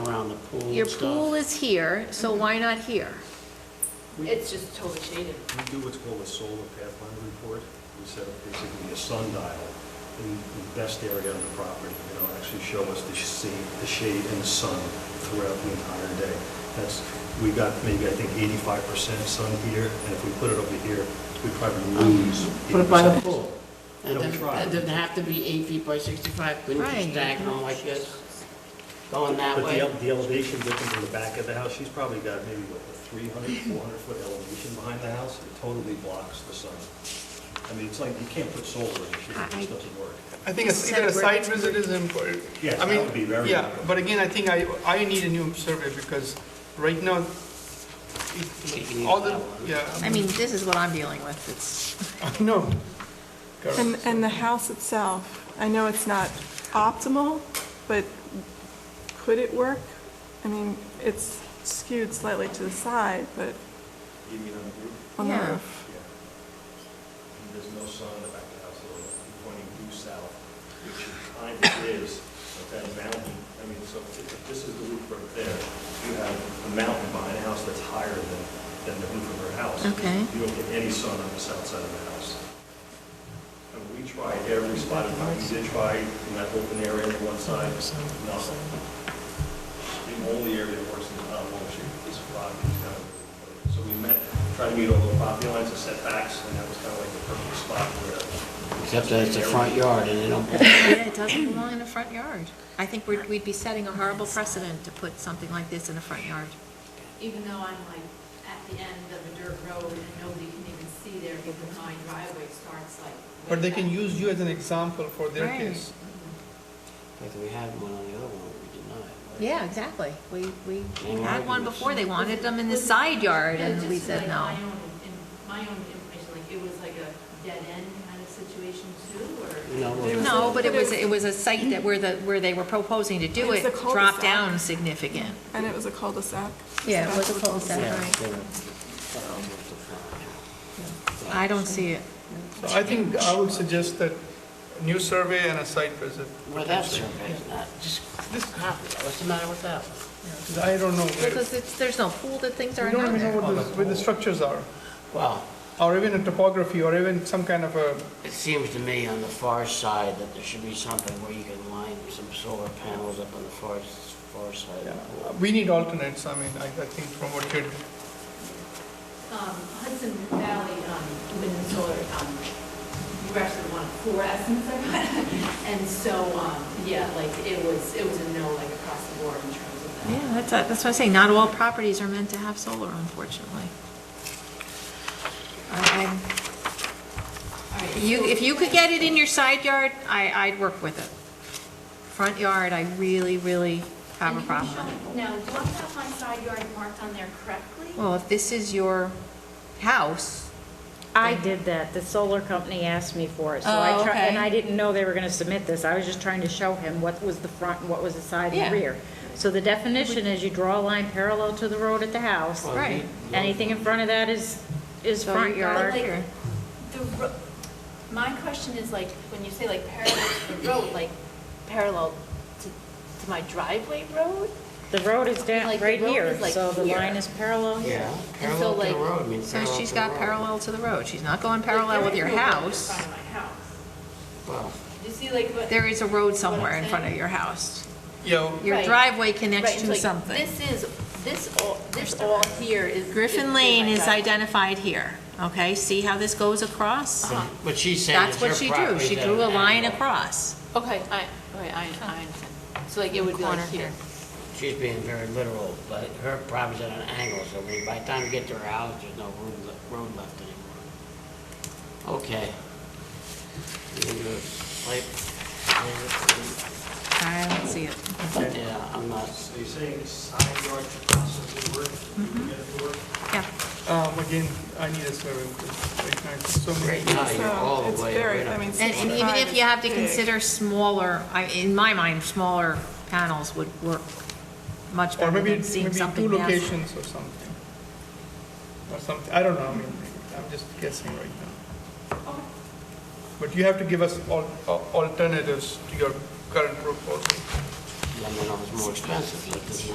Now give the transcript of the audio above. pool Your and stuff. pool is here, so why not here? We It's just totally shaded. we do what's called a solar pathfinder report. We set up basically a sundial in the best area on the property. and It'll actually show us the shade, the shade and the sun throughout the entire day. That's, we got maybe, I think, 85% sun here, and if we put it over here, we probably lose. Put it by the 80%. pool. Yeah, And we then, tried. and then have to be eight feet by sixty-five, couldn't Right. you stagger them like this, going that But the, way? el- the elevation difference in the back of the house, she's probably got maybe what, a 300, 400-foot elevation behind the house. It totally blocks the sun. I mean, it's like, you can't put solar in the shade. It just doesn't work. I think it's either a site visit is important. Yes, I mean, that would be very Yeah, important. but again, I think I, I need a new survey because right now, it- Oh, all the, I yeah, mean, this is what I'm dealing with, it's, I know. And, and the house itself, I know it's not optimal, but could it work? I mean, it's skewed slightly to the side, but You mean on the roof? on the Yeah. roof. Yeah. And There's no sun in the back of the house, so I'm pointing due south, which it kind of is, but that mountain, I mean, so if if this is the roof right there, you have a mountain behind a house that's higher than, than the roof of her house. Okay. You don't get any sun on the south side of the house. And we tried every spot, in fact, we did try in that open area on one side, nothing. The only area that works in the town hall shape is Rocky County. So we met, tried to meet all the property lines and setbacks, and that was kind of like the perfect spot where. Except that it's the front yard and they don't, yeah, it doesn't belong in a front yard. I think we'd, we'd be setting a horrible precedent to put something like this in a front yard. Even though I'm like at the end of a dirt road and nobody can even see there because my driveway starts like. way But they can back. use you as an example for their Right. case. like we had one on the other one, we denied. Yeah, exactly. We, we had one before, they wanted them in the side yard, Yeah, and we just said like no. My own, in- my own information, like it was like a dead end kind of situation too, or? No, well, There No, but it But it was, was- it was a site that where the, where they were proposing to It do was it, a dropped cul-de-sac. down significant. And it was a cul-de-sac. Yeah, it was a Back to the cul-de-sac. Yeah, right. they were- that was the front. I don't see it. So I think I would suggest that new survey and a site visit. Well, that's okay, not, just, This, what's the matter with that? one? I don't know. where- Because it's, there's no pool that things We aren't don't on even know there. what the, where the structures are, Well, or even a topography, or even some kind of a, it seems to me on the far side that there should be something where you can line some solar panels up on the far, far side of the yeah. pool. we need alternates, I mean, I, I think from what you're Um, Hudson Valley, um, wind and solar, um, you actually want four estimates I got. And so, um, yeah, like it was, it was a no, like across the board in terms of that. Yeah, that's, uh, that's what I say, not all properties are meant to have solar, unfortunately. I- I'm- All right, You, so- if you could get it in your side yard, I, I'd work with it. Front yard, I really, really have a And can you problem. show- Now, do I have my side yard marked on there correctly? Well, if this is your house, I did that. The solar company asked me for it, so I Oh, tried, and okay. I didn't know they were gonna submit this. I was just trying to show him what was the front and what was the side Yeah. and rear. So the definition is you draw a line parallel to the road at the house. Well, Right. you- Anything in front of that is, is So front you're- yard. Like, the ro- My question is like, when you say like parallel to the road, like parallel to, to my driveway road? The road is down, Like, the right road here, is, like, so the here. line is parallel. Yeah, And parallel so, to the like- road, I mean, so parallel to she's the got road. parallel to the road, she's not going Like, parallel there with is your no road in house. front of my house. Well, You see like what? There is a road somewhere in What I'm front of saying? your house. you know, Your Right. driveway Right, connects it's to like, something. This is, this all, this all here is. Griffin Lane my is driveway. identified here, okay? See how this goes across? Uh-huh. but she's saying That's it's her what property. she drew, she that drew a an line angle. across. Okay, I, okay, I, I understand. So like it would be Corner like here. She's being very literal, but her property's at an angle, so we- by the time you get to her house, there's no room, le- road left anymore. Okay. You can do a site visit. I don't see it. Yeah, I'm not, So you're saying side yard could possibly work, you would get it to work? Yeah, Um, again, I need a survey, because right now it's so many. right now, you're all So the uh, it's way. very, right I up mean, to the and, and corner. even if you have to Big. consider smaller, I, in my mind, smaller panels would work much Or better maybe, than it's- seeing maybe something two massive. locations or something. Or something, I don't know, I mean, I'm just guessing right now. But you have to give us al- al- alternatives to your current proposal. Lemon is more expensive, but this